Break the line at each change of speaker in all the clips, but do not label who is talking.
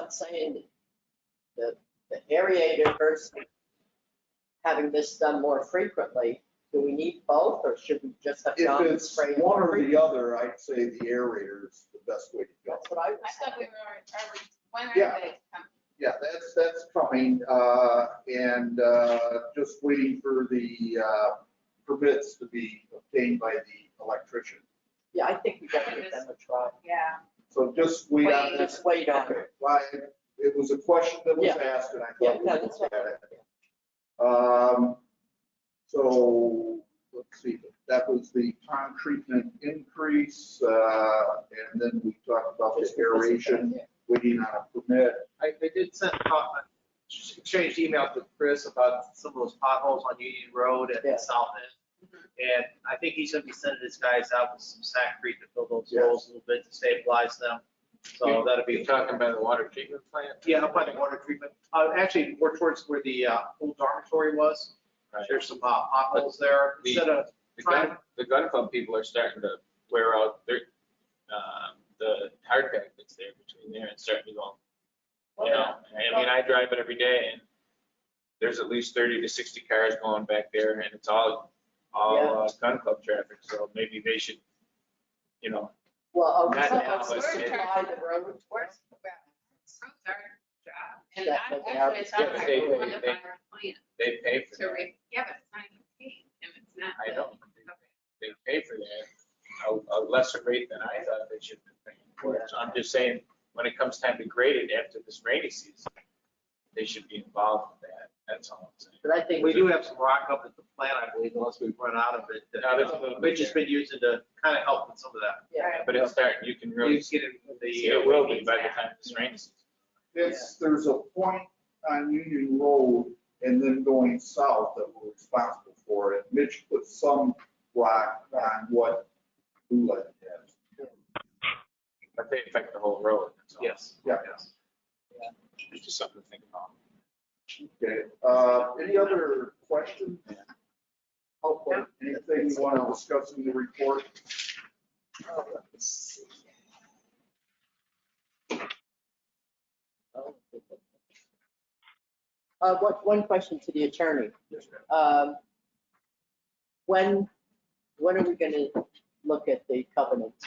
not saying that the aerator versus having this done more frequently, do we need both or should we just have
If
John
it's
spray?
one or the other, I'd say the aerator is the best way to go.
That's what I would
I
say.
thought we were, are we, when are
Yeah.
they coming?
Yeah, that's, that's coming, uh, and, uh, just waiting for the, uh, permits to be obtained by the electrician.
Yeah, I think we gotta give them a try.
Yeah,
So just wait on this.
Just wait on it.
Okay, Why, it was a question that was asked and I
Yeah,
thought we
no,
looked
that's right.
at it. Um, so, let's see, that was the pond treatment increase, uh, and then we talked about the
Just because of that,
aeration,
yeah.
waiting on a permit.
I, I did send, uh, exchanged emails with Chris about some of those potholes on Union Road at
Yeah.
the south end. And I think he's gonna be sending his guys out with some concrete to fill those
Yes.
holes a little bit to stabilize them. So that'll
You're
be,
talking about the water treatment plant?
yeah, up by the water treatment, uh, actually, we're towards where the, uh, old dormitory was.
Right.
There's some, uh, potholes there,
The-
instead of
The
trying,
gun, the gun club people are starting to wear out their, um, the hard pack that's there between there and starting to go,
Oh,
you know? I mean, I drive it every day and there's at least thirty to sixty cars going back there and it's all, all uh, gun club traffic, so maybe they should, you know,
Well, okay,
Not
so
now,
let's
but
just
it-
apply the road.
where's, where's our job? And
Yeah, but they
I, actually,
are-
it's on
Yeah,
our,
but they- they-
one of
they-
our plans
they pay for
to
that.
re, yeah, but it's not even paid, and it's not.
I know,
Okay.
they pay for that, a, a lesser rate than I thought they should be paying for it. So I'm just saying, when it comes time to grade it after this rainy season, they should be involved with that, that's all I'm saying.
But I think
we do have some rock up at the plant, I believe, unless we run out of it. that-
Now, there's a little
We've
bit
just
there,
been using to kind of help with some of that.
Yeah.
but it's starting, you can
You
really,
get it, in the.
it will be by the time this rainy season.
It's, there's a point on Union Road and then going south that we're responsible for it. Mitch put some rock on what Ulet has.
But they affect the whole road, that's all.
Yes.
Yeah.
Yes.
It's just something to think about.
Okay, uh, any other questions? Hopefully, anything you want to discuss in the report?
Uh, one, one question to the attorney.
Yes, ma'am.
Um, When, when are we gonna look at the covenants?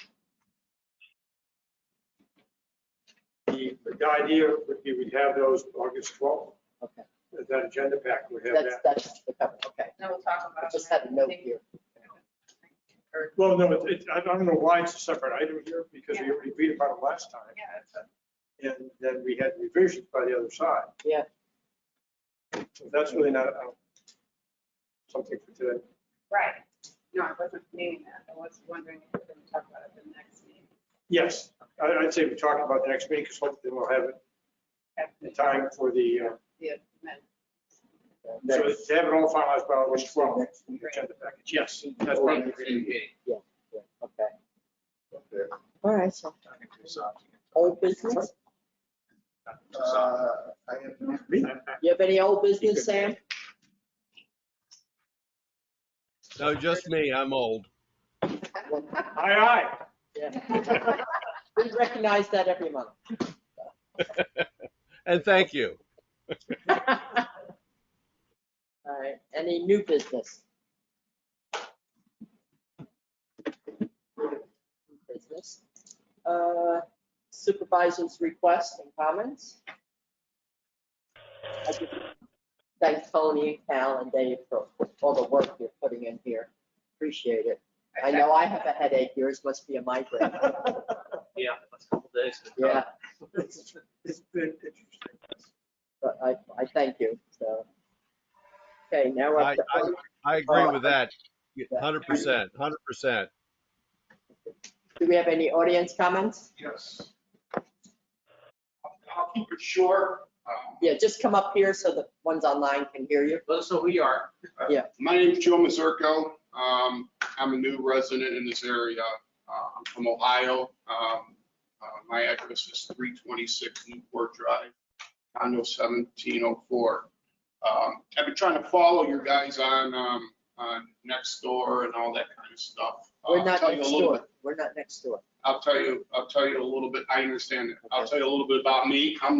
The, the idea would be we'd have those August 12th,
Okay,
as that agenda pack, we have
that's,
that.
that's the covenant, okay.
No, we'll talk
I
about.
just had a note here.
Well, no, it- it, I don't know why it's a separate item here, because we already agreed about it last time.
Yeah, that's a-
And then we had revisions by the other side.
Yeah.
So That's really not uh, something for today.
right. No, I wasn't meaning that. I was wondering if we're going to talk about it at the next meeting.
Yes, I- I'd say we talk about the next meeting, because hopefully we'll have it in time for the, uh,
Yeah, men.
so to have it all finalized by August 12th,
Next
the
week.
agenda package. Yes, that's
Or
right.
next meeting.
Yeah, Okay,
Okay.
all right, so
Talking too soft.
old business?
Uh, I have,
You have any old business, Sam?
No, just me. I'm old.
Aye, aye.
Yeah. We recognize that every month.
And thank you.
All right, any new business? New Business. Uh, Supervisors' requests and comments? I just Thank Tony, Cal, and Dave for all the work you're putting in here. Appreciate it. I know I have a headache, yours must be a migraine.
Yeah, that's a couple days.
Yeah,
It's it's been interesting.
but I, I thank you, so. Okay, now we're up to.
I- I agree with that. 100%, 100%.
Do we have any audience comments?
yes. I'll keep it short. Um,
Yeah, just come up here so the ones online can hear you.
Let us know who you are.
My name's Joe Mazurko. Um, I'm a new resident in this area. Uh, I'm from Ohio. Um, uh, my address is three twenty-six Newport Drive, condo seventeen oh four. Um, I've been trying to follow your guys on, um, on Nextdoor and all that kind of stuff. Uh,
We're
I'll
not
tell you a
next
little bit-
door. We're not next door.
I'll tell you, I'll tell you a little bit, I understand it. I'll tell you a little bit about me. I'm